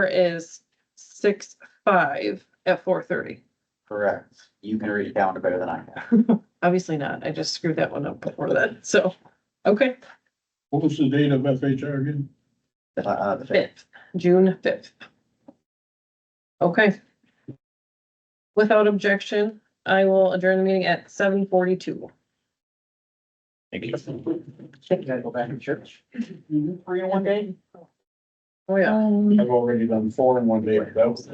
is six, five at four thirty. Correct. You can read it down better than I can. Obviously not. I just screwed that one up before that. So, okay, What was the date of FHR again? Uh, Uh, the fifth. fifth, June fifth. Okay. Without objection, I will adjourn the meeting at seven forty-two. Thank you. You gotta go back to church. Three in one day? Oh, yeah. I've already done four in one day, but that was.